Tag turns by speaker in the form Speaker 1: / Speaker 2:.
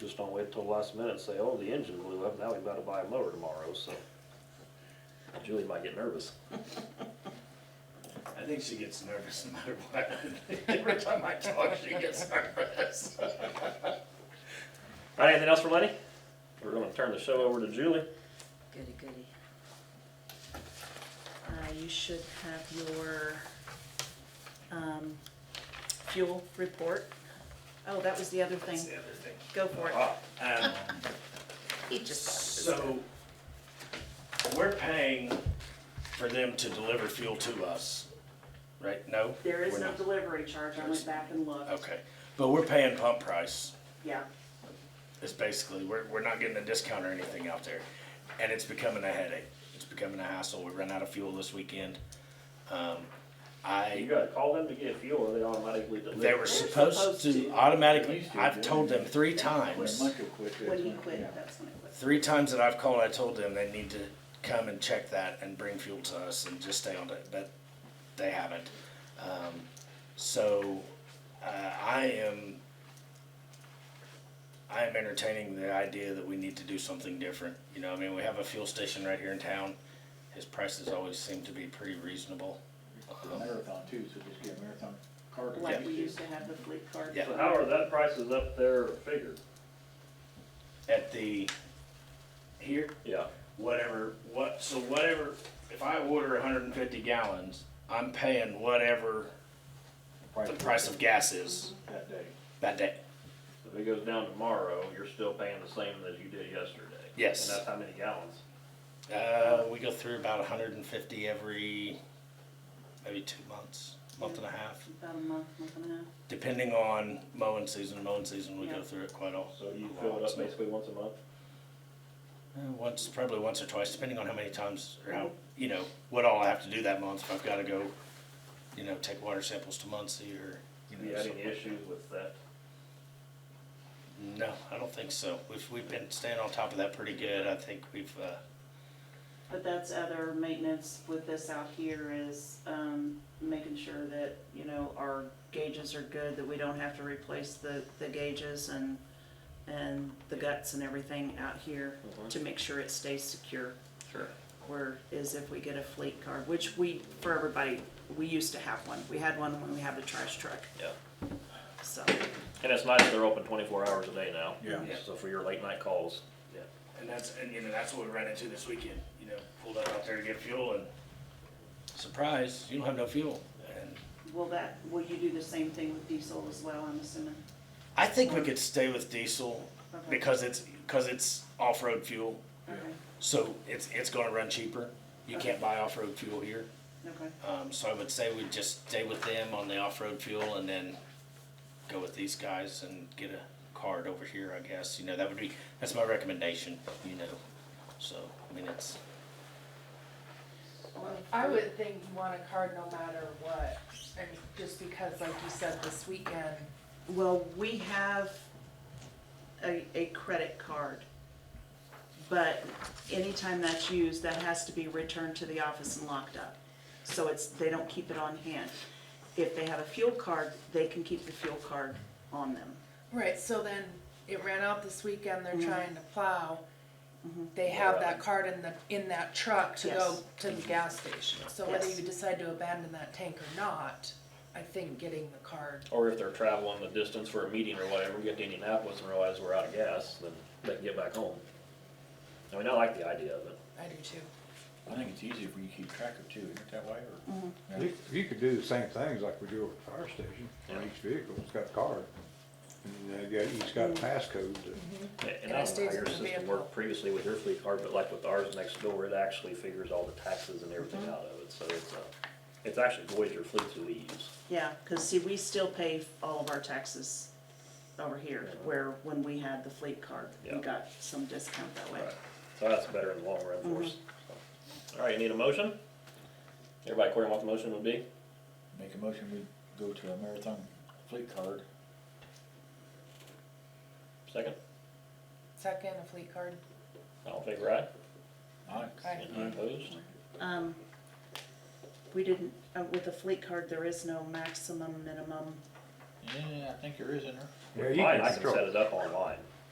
Speaker 1: Just don't wait till the last minute and say, oh, the engine blew up, now we gotta buy a mower tomorrow, so. Julie might get nervous.
Speaker 2: I think she gets nervous no matter what. Every time I talk, she gets nervous.
Speaker 1: All right, anything else for Lenny? We're gonna turn the show over to Julie.
Speaker 3: Goody, goody. Uh, you should have your, um, fuel report. Oh, that was the other
Speaker 2: That's
Speaker 3: thing.
Speaker 2: the other thing.
Speaker 3: Go for it.
Speaker 2: Um,
Speaker 3: He just got
Speaker 2: so, we're paying for them to deliver fuel to us, right? No?
Speaker 3: There is
Speaker 2: We're
Speaker 3: no
Speaker 2: not.
Speaker 3: delivery charge. I went back and looked.
Speaker 2: Okay, but we're paying pump price.
Speaker 3: Yeah,
Speaker 2: It's basically, we're, we're not getting a discount or anything out there. And it's becoming a headache. It's becoming a hassle. We ran out of fuel this weekend. Um, I.
Speaker 1: You gotta call them to get fuel, or they automatically deliver.
Speaker 2: They were supposed
Speaker 3: supposed
Speaker 2: to
Speaker 3: to.
Speaker 2: automatically,
Speaker 4: They
Speaker 2: I've
Speaker 4: used to,
Speaker 2: told
Speaker 4: didn't
Speaker 2: them three
Speaker 4: When
Speaker 2: times,
Speaker 4: Michael quit, that's
Speaker 3: when he
Speaker 4: when-
Speaker 3: quit,
Speaker 4: yeah.
Speaker 3: that's when he quit.
Speaker 2: three times that I've called, I told them they need to come and check that and bring fuel to us and just stay on it, but they haven't. Um, so, uh, I am, I am entertaining the idea that we need to do something different. You know, I mean, we have a fuel station right here in town. His prices always seem to be pretty reasonable.
Speaker 4: It's a marathon too, so just get a marathon card. or
Speaker 3: Like
Speaker 4: just
Speaker 3: we
Speaker 4: get-
Speaker 3: used to have the fleet card.
Speaker 2: Yeah.
Speaker 1: So how are that prices up there figured?
Speaker 2: At the, here,
Speaker 1: Yeah.
Speaker 2: whatever, what, so whatever, if I order hundred and fifty gallons, I'm paying whatever the price of gas is
Speaker 4: That day.
Speaker 2: that day.
Speaker 1: If it goes down tomorrow, you're still paying the same as you did yesterday.
Speaker 2: Yes.
Speaker 1: And that's how many gallons?
Speaker 2: Uh, we go through about hundred and fifty every, maybe two months, month and a half,
Speaker 3: About a month, month and a half.
Speaker 2: depending on mowing season, mowing season, we go
Speaker 3: Yeah.
Speaker 2: through it quite often.
Speaker 1: So you fill it up basically once a month?
Speaker 2: Uh, Once, probably once or twice, depending on how many times or how, you know, what all I have to do that month, if I've gotta go, you know, take water samples to Muncie or,
Speaker 1: You
Speaker 2: you know,
Speaker 1: had
Speaker 2: something
Speaker 1: any
Speaker 2: like that.
Speaker 1: issues with that?
Speaker 2: No, I don't think so. We've, we've been staying on top of that pretty good. I think we've, uh,
Speaker 3: But that's other maintenance with this out here is, um, making sure that, you know, our gauges are good, that we don't have to replace the, the gauges and, and the guts and everything out here
Speaker 1: Mhm.
Speaker 3: to make sure it stays secure.
Speaker 1: Sure.
Speaker 3: Whereas if we get a fleet card, which we, for everybody, we used to have one. We had one when we had the trash truck,
Speaker 1: Yeah.
Speaker 3: so.
Speaker 1: And it's nice they're open twenty-four hours a day now.
Speaker 4: Yeah.
Speaker 2: Yeah.
Speaker 1: So for your late night calls. Yeah.
Speaker 2: and that's, and you know, that's what we ran into this weekend, you know, pulled up out there to get fuel and surprise, you don't have no fuel. And
Speaker 3: Will that, will you do the same thing with diesel as well, I'm assuming?
Speaker 2: I think we could stay with diesel
Speaker 3: Okay.
Speaker 2: because it's, because it's off-road fuel.
Speaker 3: Okay,
Speaker 2: So it's, it's gonna run cheaper. You can't buy off-road fuel here.
Speaker 3: okay.
Speaker 2: Um, so I would say we just stay with them on the off-road fuel and then go with these guys and get a card over here, I guess, you know, that would be, that's my recommendation, you know, so, I mean, it's,
Speaker 5: I would think you want a card no matter what, I mean, just because, like you said, this weekend,
Speaker 3: Well, we have a, a credit card. But anytime that's used, that has to be returned to the office and locked up. So it's, they don't keep it on hand. If they have a fuel card, they can keep the fuel card on them.
Speaker 5: right, so then it ran out this weekend, they're
Speaker 3: Mhm.
Speaker 5: trying to plow. They have that card in the, in that truck to go
Speaker 3: Mm-hmm. Yes.
Speaker 5: to the gas station, so whether
Speaker 3: Yes.
Speaker 5: you decide to abandon that tank or not, I think getting the card,
Speaker 1: Or if they're traveling the distance for a meeting or whatever, get to Indianapolis and realize we're out of gas, then they can get back home. I mean, I like the idea of it.
Speaker 5: I do too.
Speaker 4: I think it's easier when you keep track of two, isn't it that way, or?
Speaker 3: Mm-hmm.
Speaker 4: Yeah.
Speaker 6: You you could do the same things like we do at the fire station,
Speaker 1: Yeah.
Speaker 6: on each vehicle, it's got a card. And uh, you got, each got a passcode to,
Speaker 1: And I
Speaker 5: it
Speaker 1: don't know
Speaker 5: stays
Speaker 1: how your
Speaker 5: in the
Speaker 1: system
Speaker 5: vehicle.
Speaker 1: worked previously with your fleet card, but like with ours next door, it actually figures all the taxes and everything
Speaker 5: Mhm.
Speaker 1: out of it, so it's, uh, it's actually Voyager fleets that we use.
Speaker 3: Yeah, cause see, we still pay all of our taxes over here, where when we had the fleet card,
Speaker 1: Yeah.
Speaker 3: we got some discount that way.
Speaker 1: Right. So that's better in the long run
Speaker 5: Mhm.
Speaker 1: for us. All right, you need a motion? Everybody clear on what the motion would be?
Speaker 4: Make a motion, we go to a marathon fleet card.
Speaker 1: Second?
Speaker 5: Second, a fleet card,
Speaker 1: All in favor, aye?
Speaker 4: Aye.
Speaker 5: Aye.
Speaker 1: Any opposed?
Speaker 3: Um, we didn't, uh, with the fleet card, there is no maximum, minimum,
Speaker 4: Yeah, I think there is in there.
Speaker 6: Yeah, you
Speaker 1: Mine,
Speaker 6: can
Speaker 1: I can
Speaker 6: control.
Speaker 1: set it up online.